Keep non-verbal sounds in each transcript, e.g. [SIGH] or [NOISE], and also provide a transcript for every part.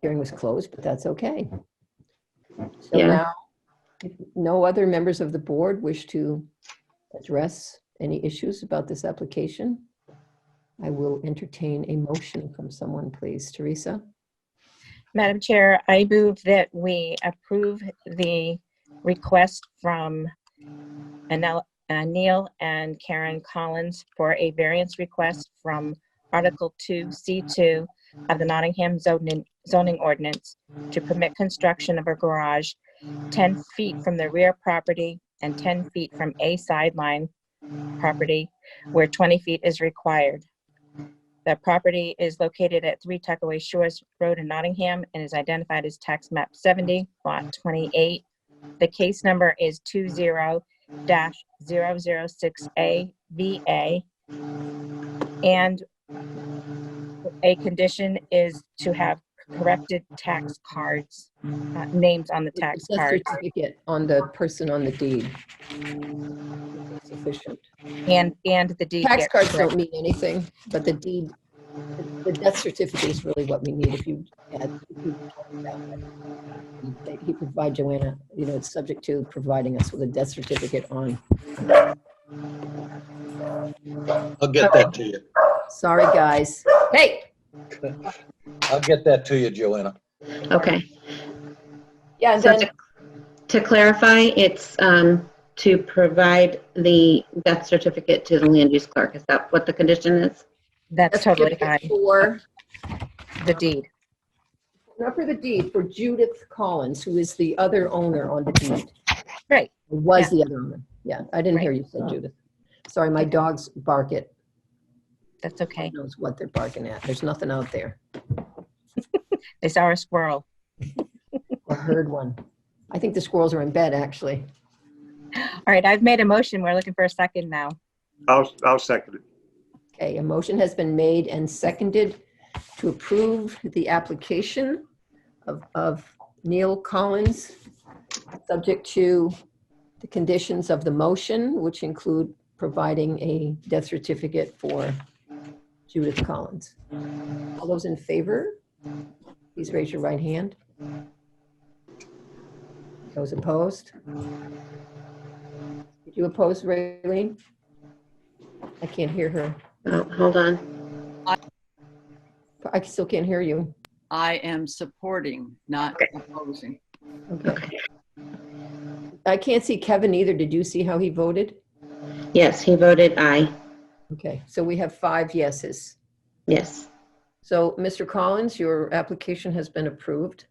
hearing was closed, but that's okay. So Yeah. now, if no other members of the board wish to address any issues about this application, I will entertain a motion from someone, please. Teresa? Madam Chair, I move that we approve the request from Anel- uh, Neil and Karen Collins for a variance request from Article 2, C2 of the Nottingham zoning zoning ordinance to permit construction of a garage 10 feet from the rear property and 10 feet from a sideline property where 20 feet is required. The property is located at 3 Tuckaway Shores Road in Nottingham and is identified as tax map 70, lot 28. The case number is 20-006AVA. And a condition is to have corrected tax cards, uh, names on the tax Death cards. certificate On the person on the deed. Sufficient. And, and the deed. Tax gets cards corrected. don't mean anything, but the deed, the death certificate is really what we need if you add. if you talk about that. That He provide Joanna, you know, it's subject to providing us with a death certificate on. I'll get that to you. Sorry, guys. Hey, I'll get that to you, Joanna. Okay. yeah, and So then, to, to clarify, it's um, to provide the death certificate to the land use clerk. Is that what the condition is? That's totally fine. certificate for, The deed. not for the deed, for Judith Collins, who is the other owner on the deed. Right. Was the other owner. Yeah, I didn't hear you say Judith. Sorry, my dogs bark at That's okay. knows what they're barking at. There's nothing out there. They saw a squirrel. I heard one. I think the squirrels are in bed, actually. All right, I've made a motion. We're looking for a second now. I'll, I'll second it. Okay, a motion has been made and seconded to approve the application of, of Neil Collins, subject to the conditions of the motion, which include providing a death certificate for Judith Collins. All those in favor, please raise your right hand. Those opposed? Did you oppose, Raylene? I can't hear her. Oh, hold on. I still can't hear you. I am supporting, not opposing. Okay. I can't see Kevin either. Did you see how he voted? Yes, he voted aye. Okay, so we have five yeses. Yes. So, Mr. Collins, your application has been approved.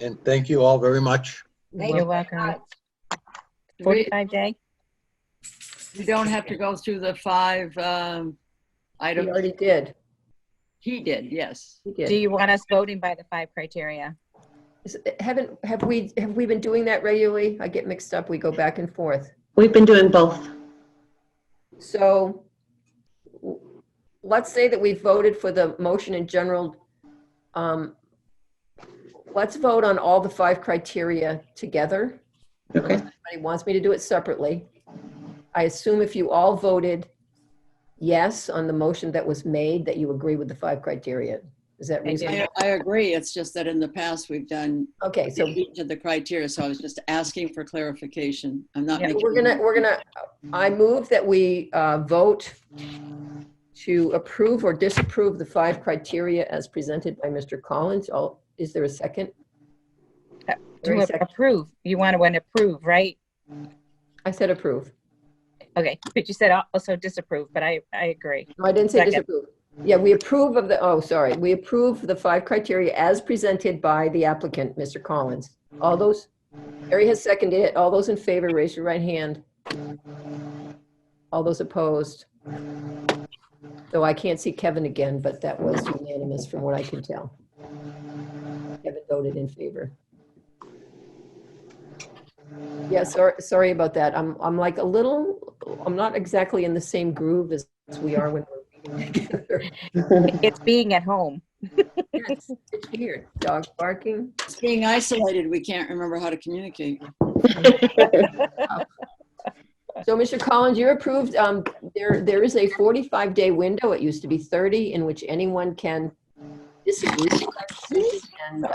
And thank you all very much. You're welcome. We, 45 day? we don't have to go through the five um, He items. already did. He did, yes. He Do did. you want us voting by the five criteria? Is- Haven't, have we, have we been doing that regularly? I get mixed up. We go back and forth. We've been doing both. So w- let's say that we voted for the motion in general. Um, Let's vote on all the five criteria together. Okay. Somebody wants me to do it separately. I assume if you all voted yes on the motion that was made, that you agree with the five criteria. Is that I did. reasonable? I, I agree, it's just that in the past, we've done Okay, so each of the criteria, so I was just asking for clarification. I'm not Yeah, making. we're gonna, we're gonna, I move that we uh, vote to approve or disapprove the five criteria as presented by Mr. Collins. All, is there a second? Uh, There is To a second. approve, you want to want to approve, right? I said approve. Okay, but you said al- also disapprove, but I, I agree. No, I didn't say Second. disapprove. Yeah, we approve of the, oh, sorry, we approve the five criteria as presented by the applicant, Mr. Collins. All those, Harry has seconded it. All those in favor, raise your right hand. All those opposed? Though I can't see Kevin again, but that was unanimous from what I can tell. Kevin voted in favor. Yeah, sorry, sorry about that. I'm, I'm like a little, I'm not exactly in the same groove as we are when we're reading [LAUGHS] together. It's being at home. It's it's weird. Dog barking. It's Being isolated, we can't remember how to communicate. So, Mr. Collins, you're approved. Um, there, there is a 45-day window, it used to be 30, in which anyone can disagree. And